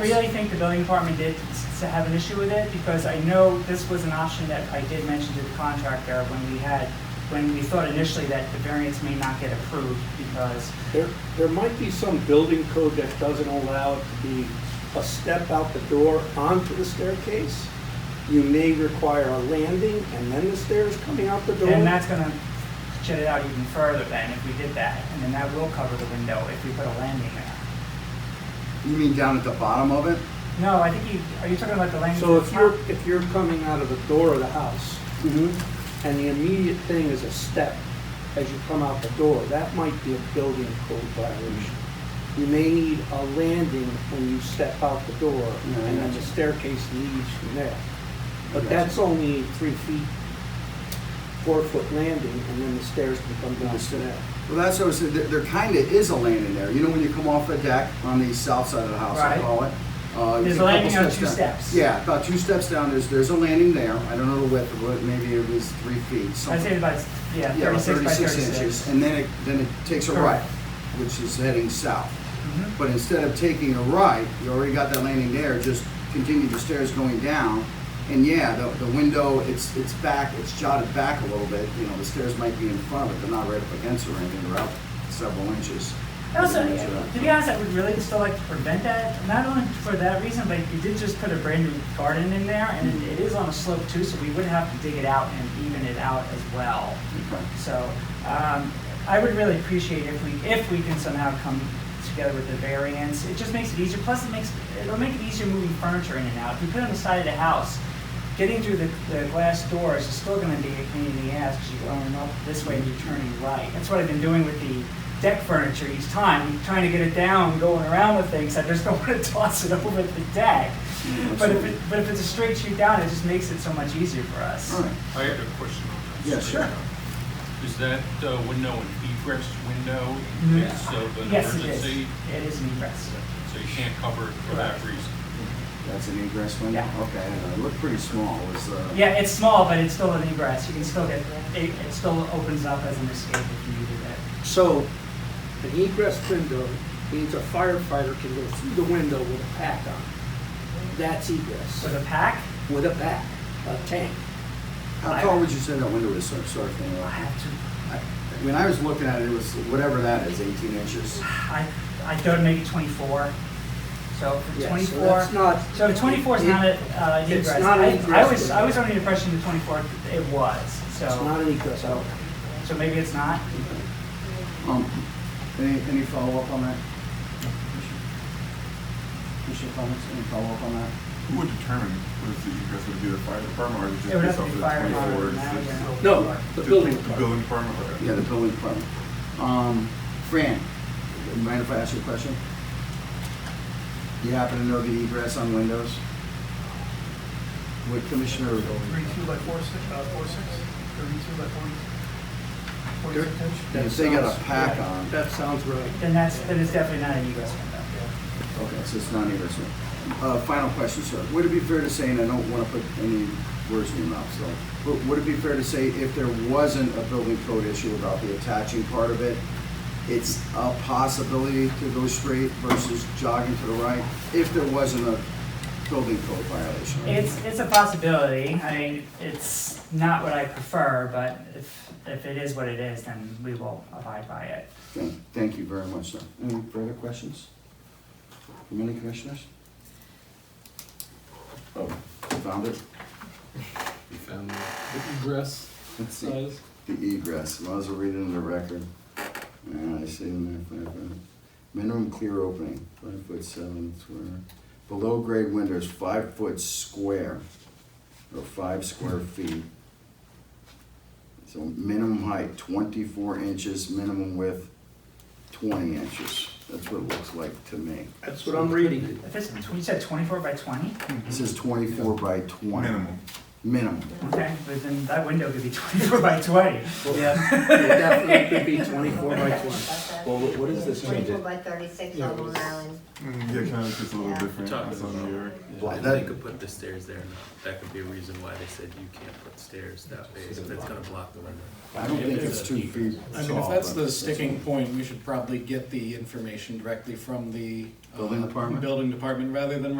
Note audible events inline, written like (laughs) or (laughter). really think the building department did s- to have an issue with it, because I know this was an option that I did mention to the contractor when we had, when we thought initially that the variance may not get approved, because, There, there might be some building code that doesn't allow it to be a step out the door onto the staircase. You may require a landing and then the stairs coming out the door. and that's gonna shut it out even further then, if we did that, and then that will cover the window if we put a landing there. You mean down at the bottom of it? No, I think you, are you talking about the landing? So that's if not- you're, if you're coming out of the door of the house Mm-hmm. and the immediate thing is a step as you come out the door, that might be a building code violation. You may need a landing when you step out the door Yeah, I and then got the you. staircase leads from there. I got But you. that's only three feet, four foot landing, and then the stairs can come down to that. Well, that's what I said, there, there kinda is a landing there, you know, when you come off the deck on the south side of the house, I Right. call it. uh, There's you take a couple landing on two down. steps. Yeah, about two steps down, there's, there's a landing there, I don't know the width of it, maybe it was three feet, I'd say something. about, yeah, Yeah, about thirty-six by inches, thirty-six. and then it, then it takes a right, Correct. which is heading south. Mhm. But instead of taking a right, you already got that landing there, just continue the stairs going down. And yeah, the, the window, it's, it's back, it's jotted back a little bit, you know, the stairs might be in front, but they're not right up against it or anything, they're out several inches. uh, I Also, to be honest, I would really still like to prevent that, not only for that reason, but you did just put a brand new garden in there, and it is on a slope too, so we would have to dig it out and even it out as well. Okay. So, um, I would really appreciate if we, if we can somehow come together with the variance. It just makes it easier, plus it makes, it'll make it easier moving furniture in and out. If you put it on the side of the house, getting through the, the glass doors is still gonna be a pain in the ass, because you're going up this way and you're turning right. That's what I've been doing with the deck furniture each time, I'm trying to get it down, going around with things, I just don't (laughs) wanna toss it over the deck. But if, it- but if it's a straight shoot down, it just makes it so much easier for us. All right, I had a question on that. Yeah, straight sure. up. Is that uh, window an egress window in Mm. case of an Yes, it is. emergency? It is an egress. So you can't cover it for that Correct. reason? that's an egress window, Yeah. okay, I don't know, it looked pretty small, it was, uh. Yeah, it's small, but it's still an egress. You can still get, it, it still opens up as an escape if you needed it. So an egress window means a firefighter can go through the window with a pack on. That's egress, With a pack, with a pack, a tank. How tall would you say that window is, so- sorry, if I anyone- have to, I- when I was looking at it, it was whatever that is, eighteen inches. I, I don't make it twenty-four. So for Yeah, so twenty-four, that's not. so twenty-four is it- not a, uh, an it's egress. not an I- I egress. was, I was under the impression the twenty-four, it was, It's so, not an egress, I don't. so maybe it's not. Um, any, any follow-up on that? Commissioner comments, any follow-up on that? Who would determine what is the egress, would it be the fire department or is it It would just have based to off be fire of the twenty-four? alarm now, Is it- yeah. No, the building The building department, okay. Yeah, the building department. Um, Fran, mind if I ask you a question? You happen to know the egress on windows? What Commissioner? Thirty-two by four six, uh, four six, thirty-two by forty, forty-six inch. That They got a sounds- pack yeah, on. That sounds right. Then that's, then it's definitely not an egress window. Okay, so it's not egress. Uh, final question, sir. Would it be fair to say, and I don't want to put any words in your mouth, so, but would it be fair to say if there wasn't a building code issue about the attaching part of it, it's a possibility to go straight versus jogging to the right if there wasn't a building code violation? It's, it's a possibility. I mean, it's not what I prefer, but if, if it is what it is, then we will abide by it. Thank, thank you very much, sir. Any further questions from any commissioners? Oh, found it? found the egress Let's see. size. The egress, might as well read it in the record. Yeah, I see in there, five foot. Minimum clear opening, five foot seven square. Below grade windows, five foot square, or five square feet. So minimum height, twenty-four inches, minimum width, twenty inches. That's what it looks like to me. That's what I'm reading. If it's, you said twenty-four by twenty? This is twenty-four by twenty. Minimum. Minimum. (laughs) Okay, but then that window could be (laughs) twenty-four by twenty. Yeah, it definitely could be twenty-four by twenty. Well, what- what is this change? Twenty-four by thirty-six on Long Island. Mm, Yeah, kind of just a little Yeah. different. Talking That's on about- New York. Well, If that- They could put the stairs there, that could be a reason why they said you can't put stairs that way, so that's gonna block the window. I don't think it's two feet I mean, if tall, that's but the sticking point, we should probably get the information directly from the. uh, Building department? Building department, rather than